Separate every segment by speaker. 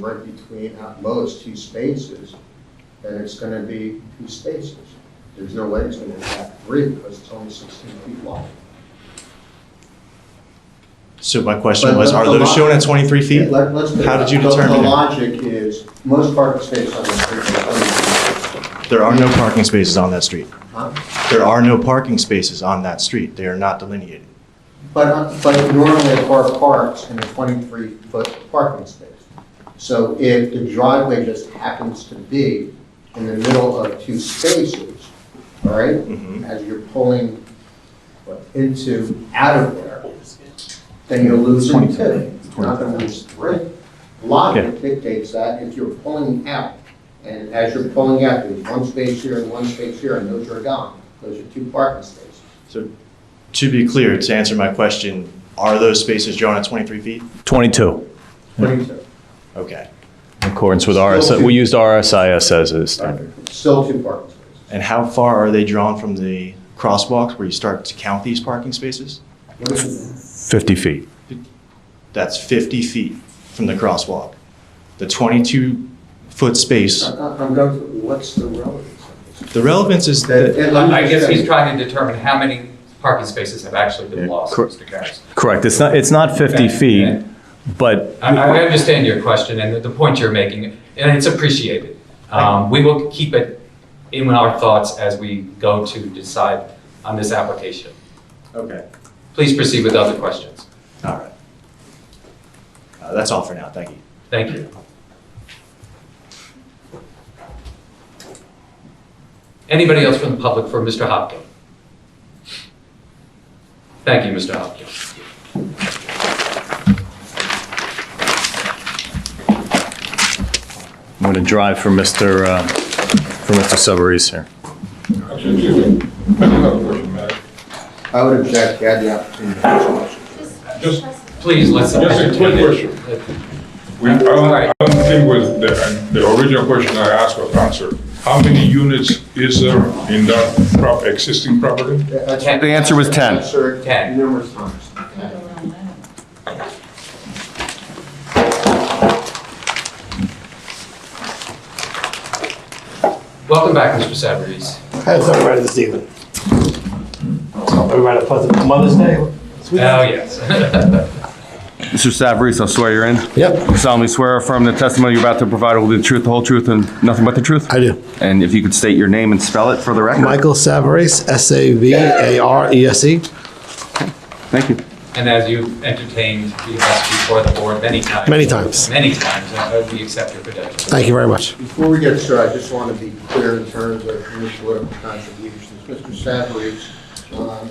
Speaker 1: right between at most two spaces, then it's gonna be two spaces. There's no way it's gonna have three because it's only sixteen feet long.
Speaker 2: So my question
Speaker 1: But
Speaker 2: was,
Speaker 1: the-
Speaker 2: are
Speaker 1: the
Speaker 2: those
Speaker 1: lo-
Speaker 2: shown at 23 feet?
Speaker 1: Let- let's-
Speaker 2: How did you
Speaker 1: the-
Speaker 2: determine
Speaker 1: The
Speaker 2: it?
Speaker 1: logic is, most parking spaces on the street are only,
Speaker 2: There are no parking spaces on that street.
Speaker 1: huh?
Speaker 2: There are no parking spaces on that street. They are not delineated.
Speaker 1: But, uh, but normally a car parks in a twenty-three foot parking space. So if the driveway just happens to be in the middle of two spaces, all right?
Speaker 2: Mhm.
Speaker 1: As you're pulling what, into, out of there, then you're losing two. You're not gonna lose three. Logic dictates that if you're pulling out, and as you're pulling out, there's one space here and one space here, and those are gone. Those are two parking spaces.
Speaker 2: So to be clear, to answer my question, are those spaces drawn at 23 feet?
Speaker 3: 22,
Speaker 1: Twenty-two.
Speaker 2: Okay.
Speaker 3: in accordance with RSI, we used RSIS as a standard.
Speaker 1: Still two parking spaces.
Speaker 2: And how far are they drawn from the crosswalks where you start to count these parking spaces?
Speaker 1: What is it?
Speaker 3: 50 feet.
Speaker 2: That's 50 feet from the crosswalk. The 22-foot space,
Speaker 1: I- I- I'm going, to- what's the relevance of this?
Speaker 2: the relevance is that,
Speaker 1: And let me
Speaker 4: I guess
Speaker 1: just
Speaker 4: he's
Speaker 1: say-
Speaker 4: trying to determine how many parking spaces have actually been lost,
Speaker 3: cor-
Speaker 4: Mr. Karas.
Speaker 3: Correct, it's not, it's not 50
Speaker 4: Okay,
Speaker 3: feet,
Speaker 4: okay.
Speaker 3: but
Speaker 4: I, I understand your question and the, the point you're making, and it's appreciated. Um, we will keep it in our thoughts as we go to decide on this application.
Speaker 2: okay,
Speaker 4: Please proceed with other questions.
Speaker 2: all right. Uh, That's all for now. Thank you.
Speaker 4: Thank you. Anybody else from the public for Mr. Hopkin? Thank you, Mr. Hopkin.
Speaker 3: I'm going to drive for Mr., uh, for Mr. Savarese here.
Speaker 5: Actually, excuse me, I do have a question, Matt.
Speaker 1: I would object, you had the opportunity. to ask questions.
Speaker 5: Just,
Speaker 4: Please, let's. Uh,
Speaker 5: Just a quick question. we, I don't, I don't think was, the, the original question I asked was answered. How many units is there in that prop, existing property?
Speaker 1: That's-
Speaker 4: Ten. The
Speaker 3: answer was ten.
Speaker 1: That's answered
Speaker 4: Ten.
Speaker 1: Numerous times.
Speaker 4: Welcome back, Mr. Savarese.
Speaker 6: I was up right this evening. Everybody a pleasant Mother's Day.
Speaker 4: Oh, yes.
Speaker 7: Mr. Savarese, I swear you're in.
Speaker 6: Yep,
Speaker 7: You solemnly swear or affirm the testimony you're about to provide will be the truth, the whole truth, and nothing but the truth?
Speaker 6: I do.
Speaker 7: And if you could state your name and spell it for the record?
Speaker 6: Michael Savarese, S-A-V-A-R-E-S-E.
Speaker 7: Thank you.
Speaker 4: And as you've entertained us before the board many times.
Speaker 6: Many times.
Speaker 4: Many times, uh, we accept your credentials.
Speaker 6: Thank you very much.
Speaker 1: Before we get started, I just want to be clear in terms of your political contributions. Mr. Savarese, um,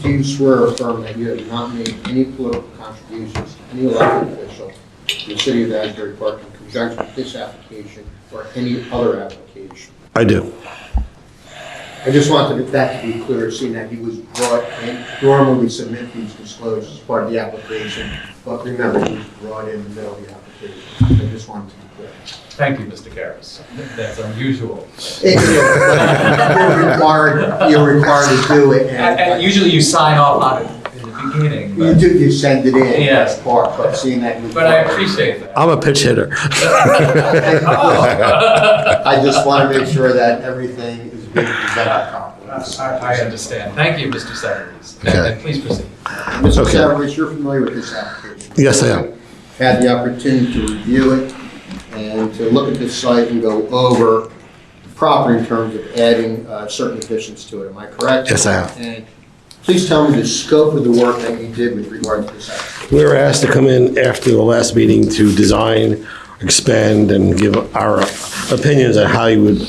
Speaker 1: do you swear or affirm that you have not made any political contributions to any elected official in the city of Asbury Park in conjunction with this application or any other application?
Speaker 6: I do.
Speaker 1: I just wanted that to be clear, seeing that he was brought in, normally we submit these disclosures as part of the application, but remember, he was brought in in the middle of the application. I just wanted to be clear.
Speaker 4: Thank you, Mr. Karas. That's unusual.
Speaker 1: It- You're required, you're required to do it,
Speaker 4: And- and
Speaker 1: and
Speaker 4: Usually you sign off on it in the beginning,
Speaker 1: you
Speaker 4: but-
Speaker 1: do, you send it in.
Speaker 4: Yes.
Speaker 1: Part, but seeing that. you-
Speaker 4: but I appreciate that.
Speaker 6: I'm a pitch hitter.
Speaker 4: Oh.
Speaker 1: I just want to make sure that everything is being presented properly.
Speaker 4: I I understand. Thank you, Mr. Savarese. And-
Speaker 6: Okay.
Speaker 4: And please proceed.
Speaker 1: Mr.
Speaker 6: Okay.
Speaker 1: Savarese, you're familiar with this application?
Speaker 6: Yes, I am.
Speaker 1: Had the opportunity to review it and to look at this site and go over the property in terms of adding uh, certain additions to it, am I correct?
Speaker 6: Yes, I am.
Speaker 1: And please tell me the scope of the work that you did with regard to this application.
Speaker 6: We were asked to come in after the last meeting to design, expand, and give our opinions on how you would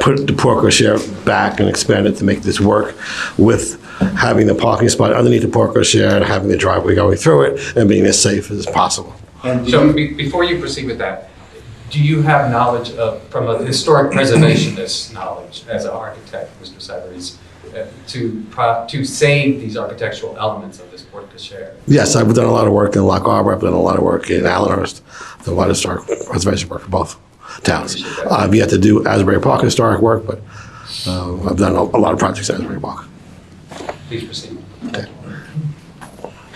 Speaker 6: put the portico share back and expand it to make this work with having the parking spot underneath the portico share and having the driveway going through it and being as safe as possible.
Speaker 1: And do
Speaker 4: So
Speaker 1: you-
Speaker 4: be- before you proceed with that, do you have knowledge of, from a historic preservationist knowledge as an architect, Mr. Savarese, uh, to, pro- to save these architectural elements of this porte cochere?
Speaker 6: Yes, I've done a lot of work in Lock Harbor. I've done a lot of work in Allenhurst. I've done a lot of historic preservation work for both towns.
Speaker 4: Appreciate that.
Speaker 6: I've yet to do Asbury Park historic work, but um, I've done a, a lot of projects at Asbury Park.
Speaker 4: Please proceed.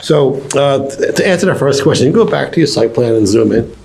Speaker 6: So uh, t- to answer the first question, go back to your site plan and zoom in.